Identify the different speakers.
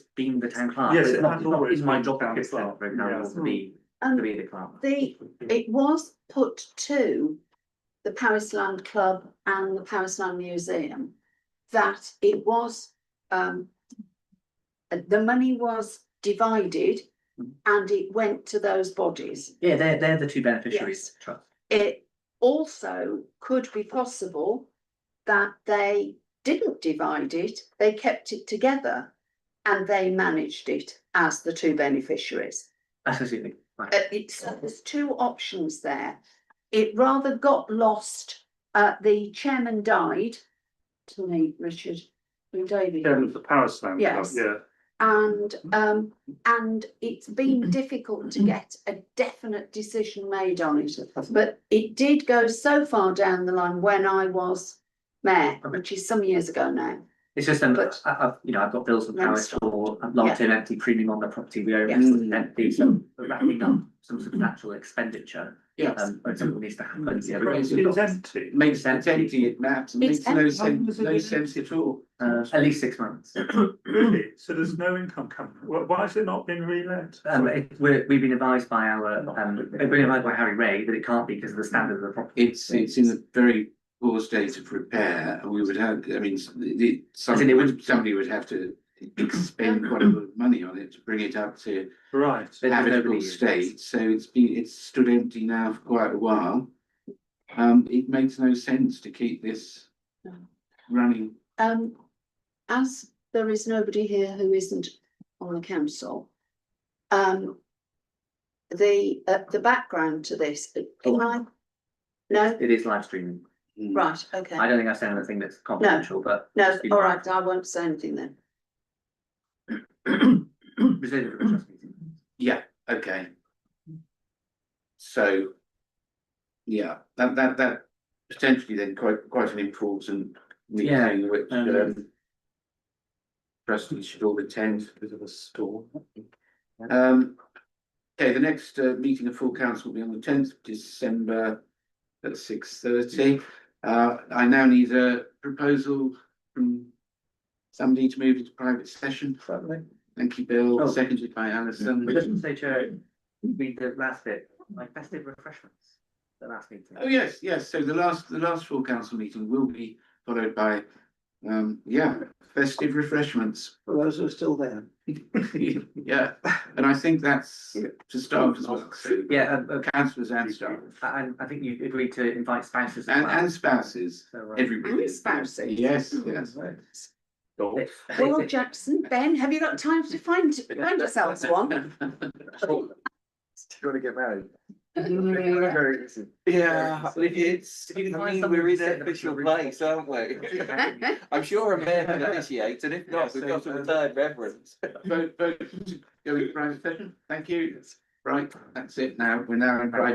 Speaker 1: being the town clerk.
Speaker 2: Yes,
Speaker 1: It's
Speaker 2: it
Speaker 1: not-
Speaker 2: has
Speaker 1: it's not- It's
Speaker 2: always
Speaker 1: my
Speaker 2: been
Speaker 1: job to
Speaker 2: town
Speaker 1: get there,
Speaker 2: clerk,
Speaker 1: for example,
Speaker 2: yes.
Speaker 1: to be, to
Speaker 3: Um,
Speaker 1: be the clerk.
Speaker 3: the, it was put to the Paris Land Club and the Paris Land Museum. That it was, um. uh, The money was divided
Speaker 1: Mhm.
Speaker 3: and it went to those bodies.
Speaker 1: Yeah, they're, they're the two beneficiaries. Trust.
Speaker 3: It also could be possible that they didn't divide it, they kept it together. And they managed it as the two beneficiaries.
Speaker 1: Absolutely. Right.
Speaker 3: Uh, it's, there's two options there. It rather got lost, uh, the chairman died, to me, Richard, and David.
Speaker 2: Chairman of the Power Slam Club,
Speaker 3: Yes.
Speaker 2: yeah.
Speaker 3: And, um, and it's been difficult to get a definite decision made on it. But it did go so far down the line when I was mayor, which is some years ago now.
Speaker 1: It's just, um,
Speaker 3: But-
Speaker 1: I, I've, you know, I've got bills for power
Speaker 3: Yes.
Speaker 1: store, a long term empty premium on the property we own,
Speaker 3: Yes.
Speaker 1: it's empty, so we're wrapping up some substantial expenditure.
Speaker 3: Yes,
Speaker 1: Um, but something needs to happen. yeah,
Speaker 4: It's
Speaker 2: It's
Speaker 1: because-
Speaker 2: empty.
Speaker 4: Makes sense, empty it maps, and
Speaker 3: It's
Speaker 4: makes no
Speaker 3: empty.
Speaker 4: sense, no sense at all.
Speaker 1: Uh, at least six months.
Speaker 2: Really? So there's no income coming. Why, why has it not been relet?
Speaker 1: Um, it, we're, we've been advised by our, um, we've been advised by Harry Ray that it can't be because of the standard of the property.
Speaker 4: It's, it's in a very poor state of repair, and we would have, I mean, s- the- the, somebody would, somebody would have to expend quite a lot of money on it to bring it up to
Speaker 2: Right.
Speaker 1: But nobody
Speaker 4: habitable
Speaker 1: uses it.
Speaker 4: state, so it's been, it's stood empty now for quite a while. Um, it makes no sense to keep this
Speaker 3: No.
Speaker 4: running.
Speaker 3: um, as there is nobody here who isn't on the council. Um, the, uh, the background to this, uh, can I? No,
Speaker 1: It is live streaming.
Speaker 4: Mm.
Speaker 3: right, okay.
Speaker 1: I don't think I've said anything that's confidential, but.
Speaker 3: No,
Speaker 1: it's been-
Speaker 3: all right, I won't say anything then.
Speaker 1: Reserved for the trust meeting.
Speaker 4: Yeah, okay. So. Yeah, that that that potentially then quite quite an important meeting which
Speaker 1: um,
Speaker 4: um. Trustees should all attend.
Speaker 2: Bit of a storm.
Speaker 4: Um. Okay, the next uh meeting of full council will be on the tenth of December at six thirty. Uh, I now need a proposal from. Somebody to move into private session.
Speaker 1: Certainly.
Speaker 4: Thank you,
Speaker 1: Oh.
Speaker 4: Bill, seconded by Alison.
Speaker 1: But doesn't say chair, read the last bit, like festive refreshments, the last meeting.
Speaker 4: Oh, yes, yes, so the last, the last full council meeting will be followed by, um, yeah, festive refreshments.
Speaker 5: For those who are still there.
Speaker 4: Yeah, and I think that's to staff as well, so
Speaker 1: Yeah, um, okay.
Speaker 4: councillors and staff,
Speaker 1: And I think you agreed to invite spouses as
Speaker 4: and,
Speaker 1: well.
Speaker 4: and spouses,
Speaker 1: So, uh,
Speaker 4: everybody.
Speaker 3: And spouses. Hmm.
Speaker 4: Yes, yes.
Speaker 1: they- they-
Speaker 3: Well,
Speaker 1: they-
Speaker 3: Jackson, Ben, have you got time to find, find yourselves one?
Speaker 5: You wanna get married?
Speaker 6: Yeah, it's, I
Speaker 1: you can find
Speaker 6: mean,
Speaker 1: someone
Speaker 6: we're
Speaker 1: to
Speaker 6: in
Speaker 1: sit
Speaker 6: an
Speaker 1: next to
Speaker 6: official
Speaker 1: you,
Speaker 6: place, aren't we? I'm sure a mayor can initiate, and if not, we've got a
Speaker 5: um,
Speaker 6: retired reverend.
Speaker 4: Vote, vote, to go in private session, thank you, right, that's it now, we're now in private.